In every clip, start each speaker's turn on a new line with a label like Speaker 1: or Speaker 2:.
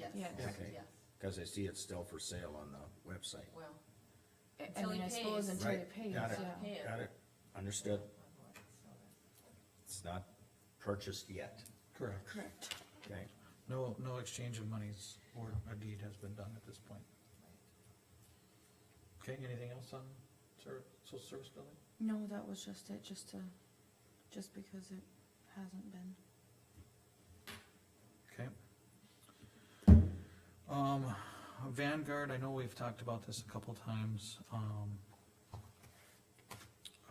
Speaker 1: that's,
Speaker 2: Yeah.
Speaker 1: yeah,
Speaker 3: Okay. Cause I see it's still for sale on the website.
Speaker 1: well.
Speaker 2: I
Speaker 1: until he
Speaker 2: mean, I suppose
Speaker 1: pays.
Speaker 2: until he
Speaker 3: Right,
Speaker 2: pays,
Speaker 3: got
Speaker 2: yeah.
Speaker 3: it.
Speaker 1: Yeah.
Speaker 3: Got it, understood, it's not purchased yet,
Speaker 4: Correct.
Speaker 2: Correct.
Speaker 3: okay?
Speaker 4: No, no exchange of monies or a deed has been done at this point. Okay, anything else on ser- social service building?
Speaker 2: No, that was just it, just to, just because it hasn't been.
Speaker 4: Okay. Um, Vanguard, I know we've talked about this a couple times, um.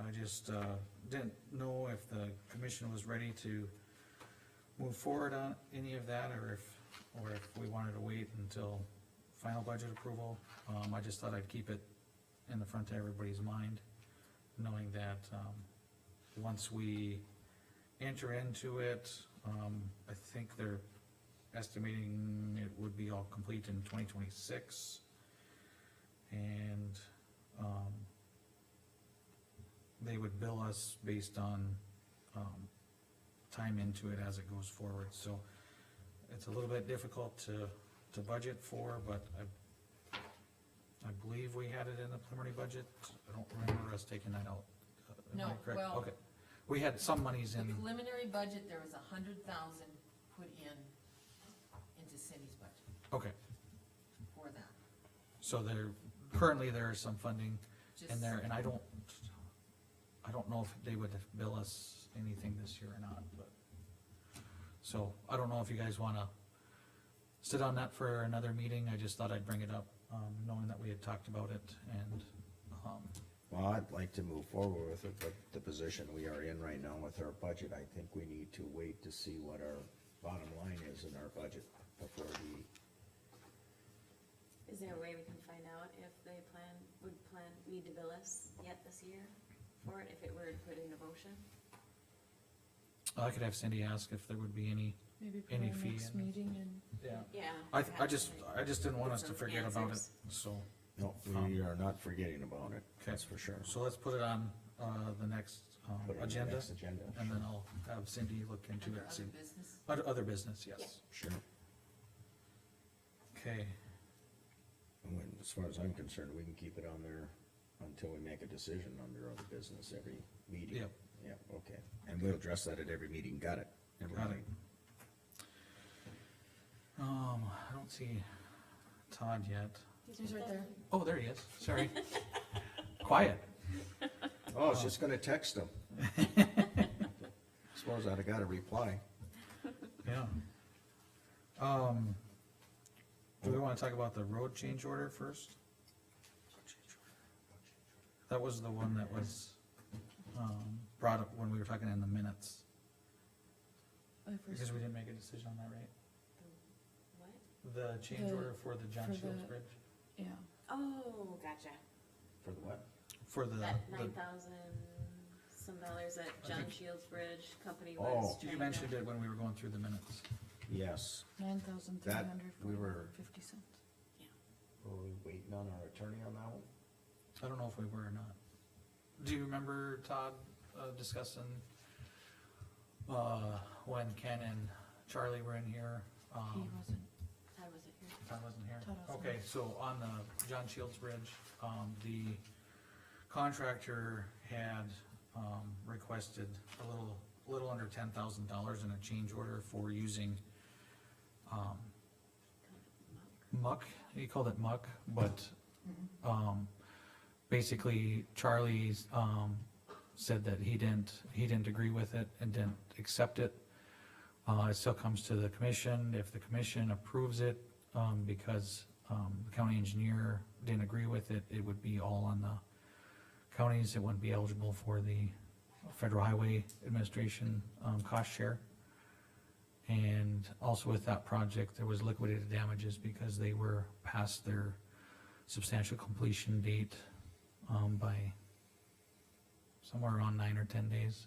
Speaker 4: I just, uh, didn't know if the commission was ready to move forward on any of that, or if, or if we wanted to wait until final budget approval. Um, I just thought I'd keep it in the front of everybody's mind, knowing that, um, once we enter into it, um, I think they're estimating it would be all complete in twenty twenty-six. And, um, they would bill us based on, um, time into it as it goes forward, so it's a little bit difficult to, to budget for, but I, I believe we had it in the preliminary budget, I don't remember us taking that out. Am I
Speaker 1: No,
Speaker 4: correct?
Speaker 1: well-
Speaker 4: Okay, we had some monies
Speaker 1: The
Speaker 4: in,
Speaker 1: preliminary budget, there was a hundred thousand put in, into Cindy's budget
Speaker 4: okay,
Speaker 1: for that.
Speaker 4: so there, currently there is some funding in
Speaker 1: Just
Speaker 4: there, and I don't, I don't know if they would bill us anything this year or not, but. So, I don't know if you guys wanna sit on that for another meeting, I just thought I'd bring it up, um, knowing that we had talked about it, and, um,
Speaker 3: Well, I'd like to move forward with it, but the position we are in right now with our budget, I think we need to wait to see what our bottom line is in our budget before we,
Speaker 5: Is there a way we can find out if they plan, would plan, need to bill us yet this year for it, if it were put into motion?
Speaker 4: I could have Cindy ask if there would be any.
Speaker 2: Maybe
Speaker 4: Any
Speaker 2: for our
Speaker 4: fee
Speaker 2: next
Speaker 4: in-
Speaker 2: meeting and,
Speaker 4: Yeah.
Speaker 5: Yeah.
Speaker 4: I,
Speaker 5: perhaps,
Speaker 4: I just,
Speaker 5: like,
Speaker 4: I just didn't want us to
Speaker 5: Some
Speaker 4: forget about it,
Speaker 5: answers.
Speaker 4: so.
Speaker 3: no, we are not forgetting about it, that's for sure.
Speaker 4: So let's put it on, uh, the next, um,
Speaker 3: Put it on the
Speaker 4: agenda,
Speaker 3: next Agenda,
Speaker 4: and then I'll have Cindy look into
Speaker 1: Under
Speaker 4: it,
Speaker 1: other
Speaker 4: see,
Speaker 1: business,
Speaker 4: other, other business, yes,
Speaker 3: sure.
Speaker 4: okay.
Speaker 3: And when- As far as I'm concerned, we can keep it on there until we make a decision under other business every meeting.
Speaker 4: Yep.
Speaker 3: Yep, okay, and we'll address that at every meeting, got it?
Speaker 4: Got it. Um, I don't see Todd yet.
Speaker 2: he's right there.
Speaker 4: Oh, there he is, sorry. Quiet.
Speaker 3: Oh, I was just gonna text them. Suppose I'd have got a reply.
Speaker 4: Yeah. Um, do we wanna talk about the road change order first? That was the one that was, um, brought up when we were talking in the minutes,
Speaker 2: I first-
Speaker 4: because we didn't make a decision on that, right? uh,
Speaker 5: What?
Speaker 4: The change
Speaker 2: The-
Speaker 4: order for the John
Speaker 2: for
Speaker 4: Shields
Speaker 2: the-
Speaker 4: Bridge,
Speaker 2: Yeah,
Speaker 5: Oh, gotcha.
Speaker 3: For the what?
Speaker 4: for the,
Speaker 5: That
Speaker 4: the-
Speaker 5: nine thousand some dollars that
Speaker 4: I
Speaker 5: John
Speaker 4: think-
Speaker 5: Shields Bridge Company
Speaker 3: Oh.
Speaker 5: was.
Speaker 4: you
Speaker 5: trying to-
Speaker 4: mentioned it when we were going through the minutes.
Speaker 3: Yes,
Speaker 2: nine thousand three
Speaker 3: That,
Speaker 2: hundred
Speaker 3: we were-
Speaker 2: fifty cents.
Speaker 3: were we waiting on our attorney on that one?
Speaker 4: I don't know if we were or not. Do you remember Todd uh, discussing, uh, when Ken and Charlie were in here?
Speaker 2: He
Speaker 4: Um,
Speaker 2: wasn't,
Speaker 5: I wasn't here.
Speaker 4: Todd wasn't here?
Speaker 2: Todd wasn't
Speaker 4: Okay, so on the John Shields Bridge, um, the contractor had, um, requested a little, little under ten thousand dollars in a change order for using, um, muck, he called it muck, but, um, basically Charlie's, um, said that he didn't, he didn't agree with it and didn't accept it. Uh, it still comes to the commission, if the commission approves it, um, because, um, the county engineer didn't agree with it, it would be all on the counties, it wouldn't be eligible for the Federal Highway Administration, um, cost share. And also with that project, there was liquidated damages because they were past their substantial completion date, um, by somewhere around nine or ten days.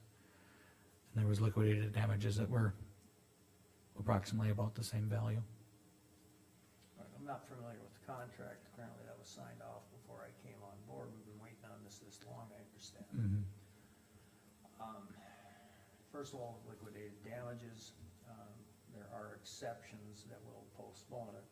Speaker 4: And there was liquidated damages that were approximately about the same value.
Speaker 6: All right, I'm not familiar with the contract, apparently that was signed off before I came on board, we've been waiting on this this long, I understand. Um, First of all, liquidated damages, um, there are exceptions that will postpone it,